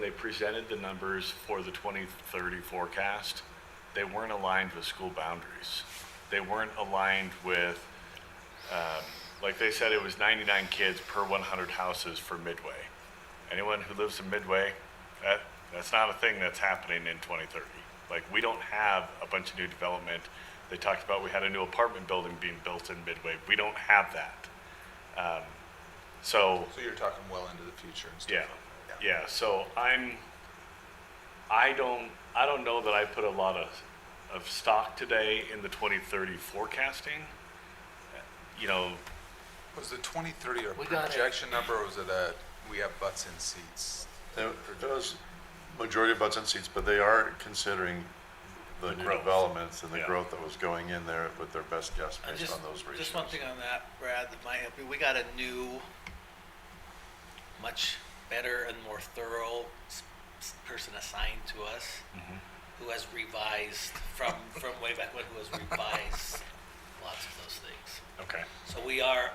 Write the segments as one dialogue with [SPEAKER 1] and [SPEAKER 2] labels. [SPEAKER 1] they presented the numbers for the 2030 forecast, they weren't aligned with school boundaries. They weren't aligned with, um, like they said, it was 99 kids per 100 houses for Midway. Anyone who lives in Midway, that, that's not a thing that's happening in 2030. Like, we don't have a bunch of new development. They talked about we had a new apartment building being built in Midway. We don't have that. Um, So,
[SPEAKER 2] So you're talking well into the future and stuff.
[SPEAKER 1] yeah, yeah, so I'm, I don't, I don't know that I put a lot of, of stock today in the 2030 forecasting. You know,
[SPEAKER 2] Was the 2030 a
[SPEAKER 3] We got it.
[SPEAKER 2] projection number or was it a, we have butts in seats?
[SPEAKER 4] Now, it does, majority of butts and seats, but they are considering the new
[SPEAKER 1] growth.
[SPEAKER 4] developments and the
[SPEAKER 1] Yeah.
[SPEAKER 4] growth that was going in there with their best guess
[SPEAKER 3] Uh,
[SPEAKER 4] based
[SPEAKER 3] just-
[SPEAKER 4] on those ratios.
[SPEAKER 3] Just one thing on that, Brad, that might help you. We got a new, much better and more thorough s- s- person assigned to us who has revised from, from way back when, who has revised lots of those things.
[SPEAKER 1] okay,
[SPEAKER 3] So we are,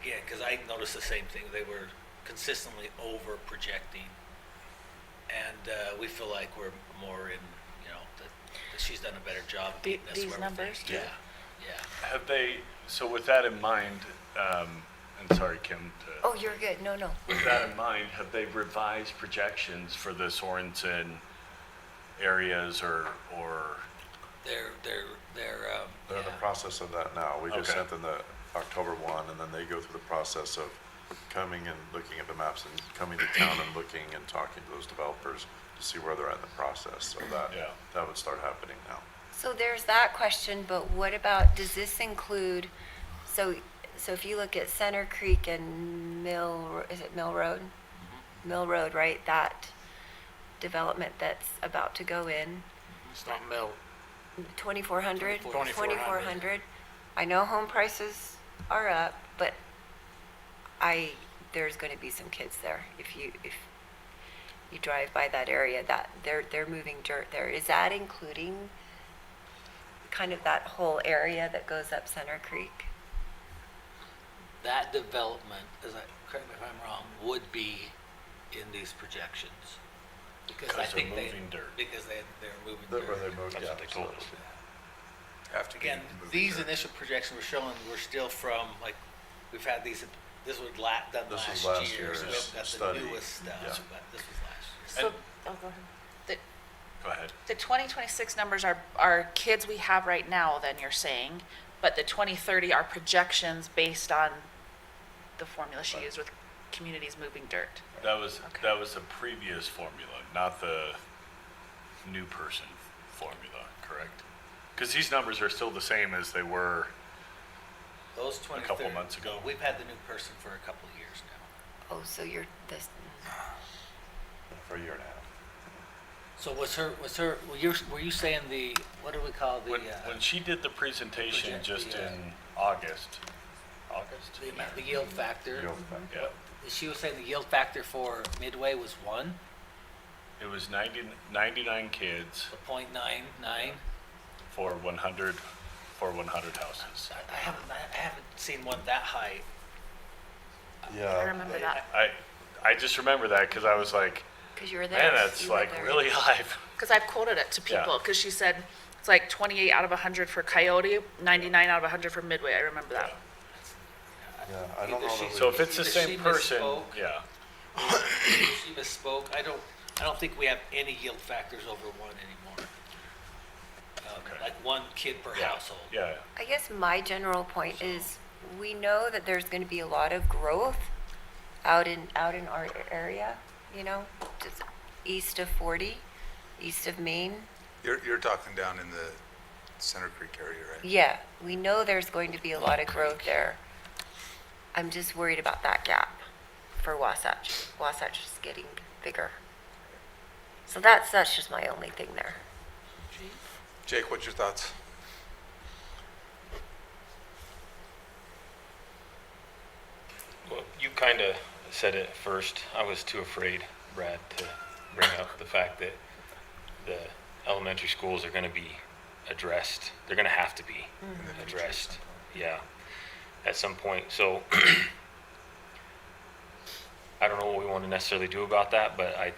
[SPEAKER 3] again, because I noticed the same thing, they were consistently over projecting. And uh, we feel like we're more in, you know, that that she's done a better job. of
[SPEAKER 5] The-
[SPEAKER 3] getting us
[SPEAKER 5] these
[SPEAKER 3] where we think-
[SPEAKER 5] numbers, too?
[SPEAKER 3] Yeah, yeah.
[SPEAKER 1] have they, so with that in mind, um, and sorry, Kim, to-
[SPEAKER 5] Oh, you're good. No, no.
[SPEAKER 1] with that in mind, have they revised projections for the Sorenson areas or, or,
[SPEAKER 3] They're, they're, they're, um,
[SPEAKER 4] They're in the
[SPEAKER 3] yeah.
[SPEAKER 4] process of that now. We just
[SPEAKER 1] Okay.
[SPEAKER 4] sent them the October one, and then they go through the process of coming and looking at the maps and coming to town and looking and talking to those developers to see where they're at in the process, so that,
[SPEAKER 1] Yeah.
[SPEAKER 4] that would start happening now.
[SPEAKER 6] So there's that question, but what about, does this include, so, so if you look at Center Creek and Mill, is it Mill Road? Mill Road, right, that development that's about to go in,
[SPEAKER 7] It's not mill.
[SPEAKER 6] twenty-four hundred?
[SPEAKER 7] 2400.
[SPEAKER 6] Twenty-four hundred. I know home prices are up, but I, there's gonna be some kids there. If you, if you drive by that area, that, they're, they're moving dirt there. Is that including kind of that whole area that goes up Center Creek?
[SPEAKER 3] That development, as I, correct me if I'm wrong, would be in these projections. Because I
[SPEAKER 1] Because they're
[SPEAKER 3] think they,
[SPEAKER 1] moving dirt.
[SPEAKER 3] because they, they're moving
[SPEAKER 4] That
[SPEAKER 3] dirt.
[SPEAKER 4] where they moved,
[SPEAKER 1] that's
[SPEAKER 4] yeah.
[SPEAKER 1] what they told us?
[SPEAKER 2] After
[SPEAKER 3] Again,
[SPEAKER 2] moving
[SPEAKER 3] these
[SPEAKER 2] dirt.
[SPEAKER 3] initial projections we're showing were still from, like, we've had these, this was la, done
[SPEAKER 4] This
[SPEAKER 3] last
[SPEAKER 4] was last
[SPEAKER 3] year, so we
[SPEAKER 4] year's
[SPEAKER 3] haven't got the
[SPEAKER 4] study,
[SPEAKER 3] newest stuff,
[SPEAKER 4] yeah.
[SPEAKER 3] but this was last year.
[SPEAKER 5] So, oh, go ahead.
[SPEAKER 8] The,
[SPEAKER 1] Go ahead.
[SPEAKER 8] the 2026 numbers are, are kids we have right now, then you're saying, but the 2030 are projections based on the formula she used with communities moving dirt.
[SPEAKER 1] That was,
[SPEAKER 8] Okay.
[SPEAKER 1] that was the previous formula, not the new person formula, correct? Because these numbers are still the same as they were,
[SPEAKER 3] Those
[SPEAKER 1] couple
[SPEAKER 3] 20
[SPEAKER 1] months ago.
[SPEAKER 3] We've had the new person for a couple of years now.
[SPEAKER 6] Oh, so you're, this,
[SPEAKER 4] For a year and a half.
[SPEAKER 3] So was her, was her, were you, were you saying the, what do we call the,
[SPEAKER 1] when,
[SPEAKER 3] uh,
[SPEAKER 1] when she did the presentation
[SPEAKER 3] Project
[SPEAKER 1] just
[SPEAKER 3] the, uh,
[SPEAKER 1] in August. August?
[SPEAKER 3] the amount- the yield factor?
[SPEAKER 4] Yield
[SPEAKER 8] Mm-hmm.
[SPEAKER 4] factor.
[SPEAKER 1] Yeah,
[SPEAKER 3] She was saying the yield factor for Midway was one,
[SPEAKER 1] it was 90 99 kids
[SPEAKER 3] a point nine nine.
[SPEAKER 1] for one hundred, for one hundred houses.
[SPEAKER 3] I I haven't, I haven't seen one that high.
[SPEAKER 4] Yeah.
[SPEAKER 8] I remember that,
[SPEAKER 1] I, I just remember that because I was like,
[SPEAKER 6] because you were there.
[SPEAKER 1] man, that's
[SPEAKER 6] you were
[SPEAKER 1] like
[SPEAKER 6] there.
[SPEAKER 1] really high.
[SPEAKER 8] because I've quoted it to
[SPEAKER 1] Yeah.
[SPEAKER 8] people, because she said, it's like 28 out of 100 for Coyote, 99 out of 100 for Midway, I remember that.
[SPEAKER 4] Yeah, I don't
[SPEAKER 3] Either
[SPEAKER 4] know
[SPEAKER 3] she-
[SPEAKER 4] that we-
[SPEAKER 1] So if it's the
[SPEAKER 3] Either she
[SPEAKER 1] same person,
[SPEAKER 3] misspoke.
[SPEAKER 1] yeah,
[SPEAKER 3] She misspoke. I don't, I don't think we have any yield factors over one anymore. Um,
[SPEAKER 1] Okay.
[SPEAKER 3] Like one kid per
[SPEAKER 1] yeah,
[SPEAKER 3] household.
[SPEAKER 1] yeah.
[SPEAKER 6] I guess my general point is, we know that there's gonna be a lot of growth out in, out in our area, you know, just east of forty, east of Maine.
[SPEAKER 2] You're, you're talking down in the Center Creek area, right?
[SPEAKER 6] Yeah, we know there's going to be a lot of growth there. I'm just worried about that gap for Wasatch. Wasatch is getting bigger. So that's, that's just my only thing there.
[SPEAKER 2] Jake, what's your thoughts?
[SPEAKER 7] Well, you kind of said it first. I was too afraid, Brad, to bring up the fact that the elementary schools are going to be addressed. They're going to have to be addressed. Yeah, at some point. So I don't know what we want to necessarily do about that, but I